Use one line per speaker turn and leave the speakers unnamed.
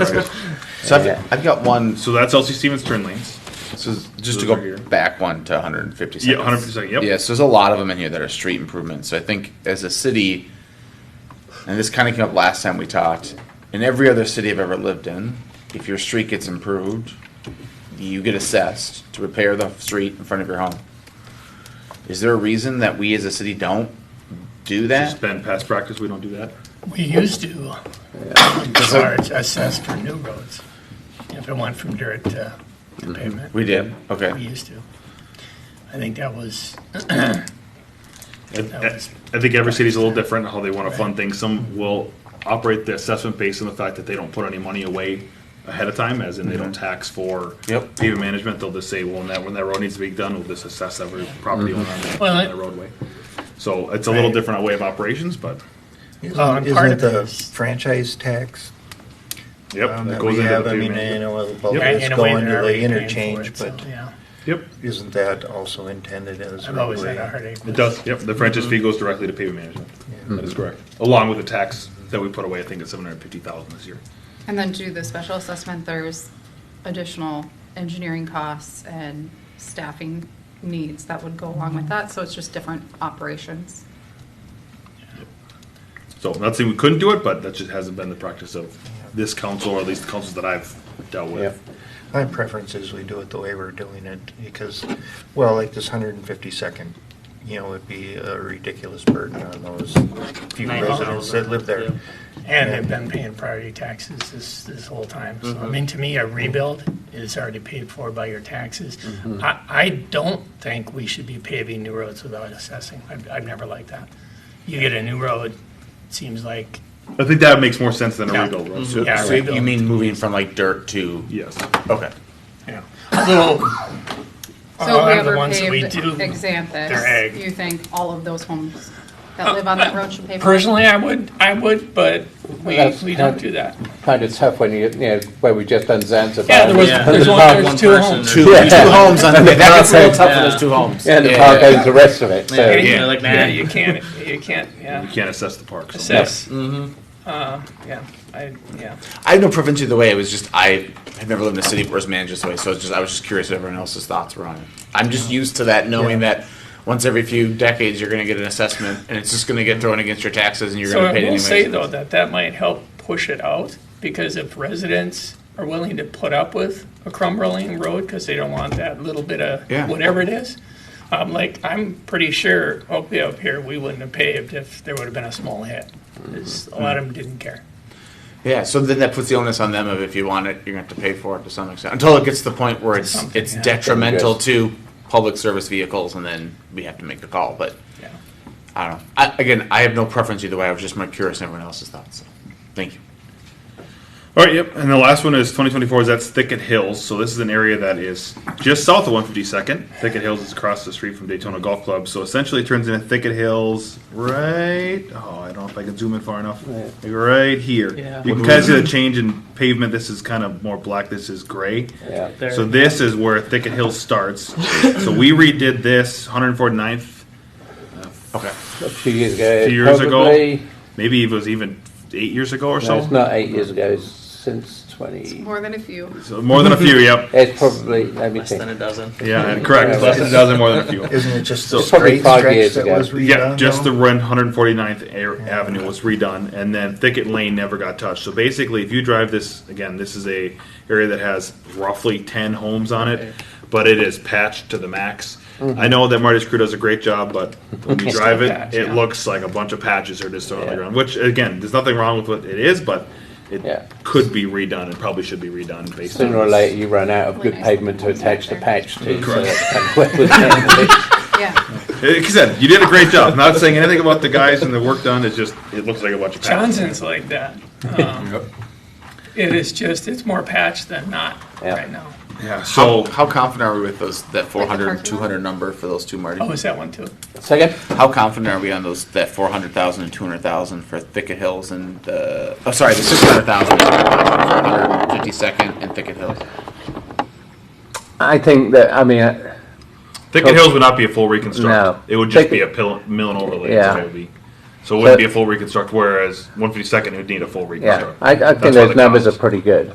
So I've, I've got one.
So that's LC Stevens turn lanes.
So just
Those are
to go
here.
back one to 150 seconds.
Yeah, 100%, yep.
Yeah, so there's a lot of them in here that are street improvements. So I think as a city, and this kind of came up last time we talked, in every other city I've ever lived in, if your street gets improved, you get assessed to repair the street in front of your home. Is there a reason that we as a city don't do
It's
that?
been past practice, we don't do that.
We used to charge assess for new roads, if it went from dirt to to pavement.
We did.
We
Okay.
used to. I think that was,
I I think every city's a little different in how they want to fund things. Some will operate the assessment based on the fact that they don't put any money away ahead of time, as in they
Mm-hmm.
don't tax for
Yep.
pavement management. They'll just say, well, when that, when that road needs to be done, we'll just assess every property
Mm-hmm.
owner on the-
Well,
on
I-
the roadway. So it's a little
Right.
different way of operations, but,
Well, and
Isn't
Oh, part
isn't it
of it
the
is-
franchise tax?
yep,
um,
that
That
goes
we
into the
have, I mean,
pavement.
you know, well,
Yep.
it's
in a way,
going to
they're
the
already paying for
interchange,
it, so,
but
yeah.
Yep,
isn't that also intended as?
I've always had
way-
a heartache.
it does, yep, the franchise fee goes directly to pavement management. That is correct. Along with the tax that we put away, I think it's seven hundred and fifty thousand this year.
And then to the special assessment, there's additional engineering costs and staffing needs that would go along with that, so it's just different operations.
So I'm not saying we couldn't do it, but that just hasn't been the practice of this council, or at least the councils that I've dealt with.
My preference is we do it the way we're doing it, because, well, like this hundred and fifty second, you know, would be a ridiculous burden on those few
Nine
residents that live there.
And they've been paying priority taxes this, this whole time. So, I mean, to me, a rebuild is already paid for by your taxes. I, I don't think we should be paving new roads without assessing. I've, I've never liked that. You get a new road, seems like,
I think that makes more sense than a
Yeah.
rebuild road. So-
Yeah,
So
rebuild.
you mean moving from like dirt to?
Yes.
Okay.
you know, although,
So
a lot of Uh, the
whoever
ones that we
paved
do, they're
Xanthus,
ag.
you think all of those homes that live on that road should pay for it?
personally, I would, I would, but we,
That's
we
kind
don't
of-
do that.
kind of tough when you, you know, where we just done Zanzibar.
Yeah, there was, there's only, there's two homes.
Two.
Two homes on that gets real tough.
for those two homes.
And the park owns the rest of it, so.
Yeah,
Yeah, like, nah.
Yeah, you can't, you can't,
You
yeah,
can't assess the park. so-
assess. Uh,
Mm-hmm.
yeah, I, yeah.
I have no preference either way. It was just I have never lived in a city where it's managed this way, so it's just I was just curious what everyone else's thoughts were on it. I'm just used to that, knowing that once every few decades you're going to get an assessment, and it's just going to get thrown against your taxes, and you're
So
going to
I
pay it
will
anyways.
say though, that that might help push it out, because if residents are willing to put up with a crumbling road, because they don't want that little bit of
Yeah.
whatever it is, um, like, I'm pretty sure, hopefully up here, we wouldn't have paved if there would have been a small hit. 'Cause A lot of them didn't care.
yeah, so then that puts the onus on them of if you want it, you're going to have to pay for it to some extent until it gets to the point where it's
Something,
it's
yeah.
detrimental to public service vehicles, and then we have to make the call. But
Yeah.
I don't know. I, again, I have no preference either way. I was just more curious on everyone else's thoughts. So, thank you.
All right, yep. And the last one is 2024 is that's Thicket Hills. So this is an area that is just south of 152nd. Thicket Hills is across the street from Daytona Golf Club. So essentially it turns into Thicket Hills right, oh, I don't know if I can zoom in far enough. Like right here.
Yeah.
You can kind of see the change in pavement. This is kind of more black. This is gray.
Yeah.
There-
So this is where Thicket Hills starts. so we redid this 149th,
Okay.
A few years ago.
Few years ago?
probably.
Uh, maybe it was even eight years ago or
No,
so.
it's not eight years ago, it's since twenty,
More than a few.
so more than a few, yep.
it's probably, let me
Less than a
think.
dozen.
Yeah, correct. Less than a dozen, more than a few.
Isn't it just the
So-
Probably
straight
five
stretch
years
that
ago.
was redone?
Yeah, just the
though?
run 149th Air Avenue was redone, and then Thicket Lane never got touched. So basically, if you drive this again, this is a area that has roughly 10 homes on it, but it is patched to the max.
Mm-hmm.
I know that Marty's crew does a great job, but when you drive it,
patched,
it
yeah.
looks like a bunch of patches are just thrown on the
Yeah.
ground. Which again, there's nothing wrong with what it is, but it
Yeah.
could be redone and probably should be redone based
Sooner
on
or
this.
later, you run out of
When
good
I saw
pavement to
the ones
attach
out
the
there.
patch to. so
Correct.
that's kind of where we're at.
Yeah,
Like I said, you did a great job. Not saying anything about the guys and the work done. It's just it looks like a bunch of patches.
Johnson's like that. Um, It is just, it's more patched than not
Yeah.
right now.
Yeah. So
Oh, How confident are we with those that
parking
400,
lot?
200 number for those two, Marty?
Oh, is that one too?
Second,
How confident are we on those that 400,000 and 200,000 for Thicket Hills and the oh sorry the 600,000 and 452nd and Thicket Hills?
I think that, I mean, uh,
Thicket Hills would not be a full reconstruct.
No.
It would just
Thicket-
be a pill, mill and overlay. is
Yeah.
what it would be. So it wouldn't
But-
be a full reconstruct, whereas 152nd would need a full
yeah,
reconstruct.
I, I
That's why
think those
the
numbers are
cost-
pretty good.